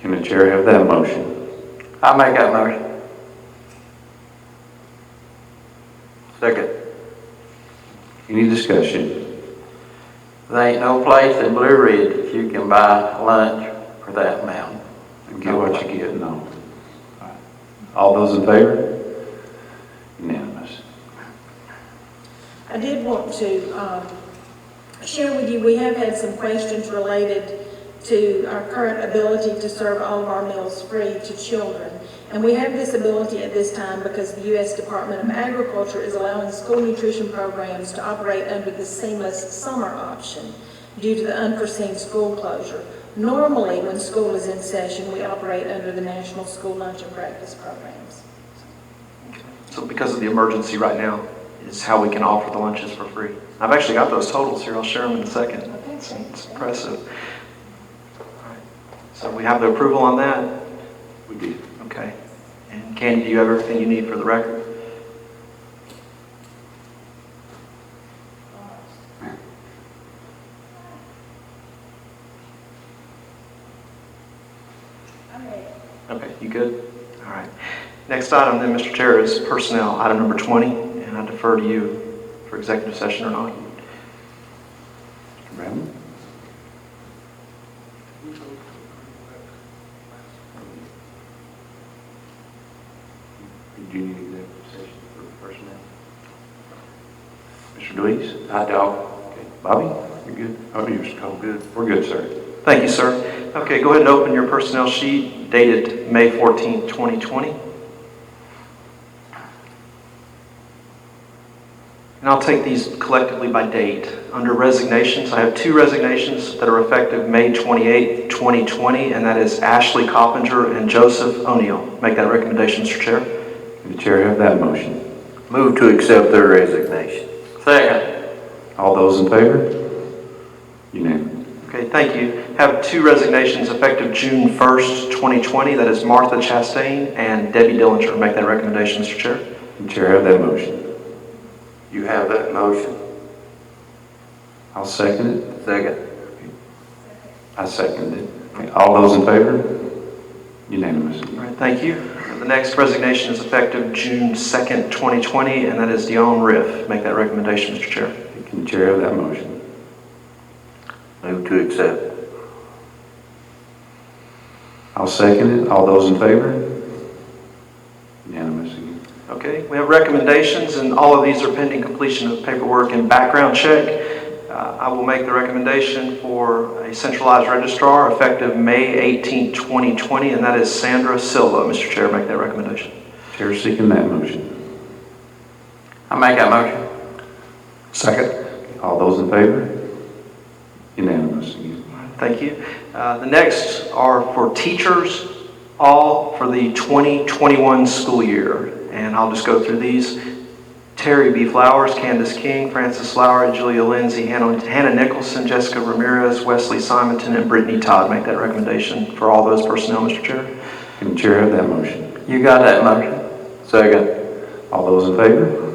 Can the chair have that motion? I'll make that motion. Second. Any discussion? There ain't no place in Blue Ridge that you can buy lunch for that amount. Get what you get, no. All those in favor? Unanimous. I did want to um, share with you, we have had some questions related to our current ability to serve all of our meals free to children. And we have this ability at this time because the U.S. Department of Agriculture is allowing school nutrition programs to operate under the seamless summer option due to the unforeseen school closure. Normally, when school is in session, we operate under the National School Lunch and Practice Programs. So because of the emergency right now, is how we can offer the lunches for free. I've actually got those totals here, I'll share them in a second. It's it's impressive. All right. So we have the approval on that? We did. Okay. And Candy, do you have everything you need for the record? Okay, you good? All right. Next item then, Mr. Chair, is personnel, item number 20, and I defer to you for executive session or not. Mr. Bradley? Do you need executive session for personnel? Mr. Deweese? I don't. Bobby, you're good? Oh, you're still good. We're good, sir. Thank you, sir. Okay, go ahead and open your personnel sheet dated May 14, 2020. And I'll take these collectively by date. Under resignations, I have two resignations that are effective May 28, 2020, and that is Ashley Coppinger and Joseph O'Neill. Make that recommendation, Mr. Chair. Can the chair have that motion? Move to accept their resignation. Second. All those in favor? Unanimous. Okay, thank you. Have two resignations effective June 1st, 2020, that is Martha Chastain and Debbie Dillinger. Make that recommendation, Mr. Chair. Can the chair have that motion? You have that motion? I'll second it. Second. I second it. Okay, All those in favor? Unanimous. All right, thank you. The next resignation is effective June 2nd, 2020, and that is Dion Riff. Make that recommendation, Mr. Chair. Can the chair have that motion? Move to accept. I'll second it. All those in favor? Unanimous again. Okay, we have recommendations, and all of these are pending completion of paperwork and background check. Uh, I will make the recommendation for a centralized registrar effective May 18, 2020, and that is Sandra Silva. Mr. Chair, make that recommendation. Chair seeking that motion. I make that motion. Second. All those in favor? Unanimous again. Thank you. Uh, The next are for teachers, all for the 2021 school year. And I'll just go through these. Terry B. Flowers, Candace King, Frances Lauer, Julia Lindsay, Hannah Hannah Nicholson, Jessica Ramirez, Wesley Simonton, and Brittany Todd. Make that recommendation for all those personnel, Mr. Chair. Can the chair have that motion? You got that motion? Second. All those in favor?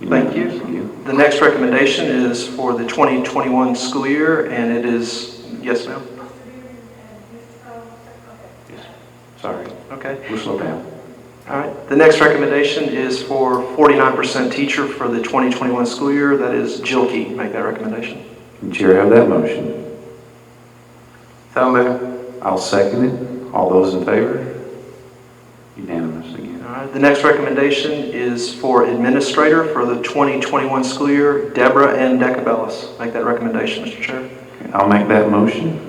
Thank you. Unanimous again. The next recommendation is for the 2021 school year, and it is, yes, ma'am? Sorry, Okay. we'll slow down. All right, the next recommendation is for 49% teacher for the 2021 school year, that is Jill Key, make that recommendation. Can the chair have that motion? So moved. I'll second it. All those in favor? Unanimous again. All right, the next recommendation is for administrator for the 2021 school year, Deborah N. Decabellis, make that recommendation, Mr. Chair. I'll make that motion.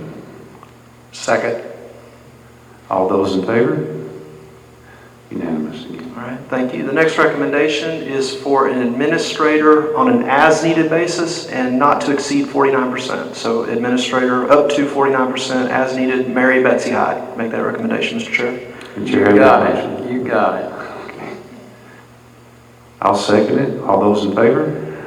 Second. All those in favor? Unanimous again. All right, thank you. The next recommendation is for an administrator on an as-needed basis and not to exceed 49%. So administrator up to 49% as needed, Mary Betsy Hyde, make that recommendation, Mr. Chair. Can the chair You have got that motion? it. You got it. I'll second it. All those in favor?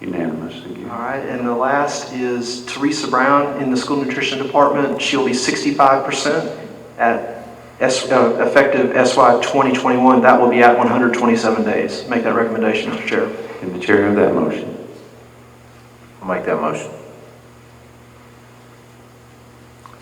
Unanimous again. All right, and the last is Teresa Brown in the school nutrition department. She'll be 65% at S- uh, effective SY 2021. That will be at 127 days. Make that recommendation, Mr. Chair. Can the chair have that motion? I'll make that motion.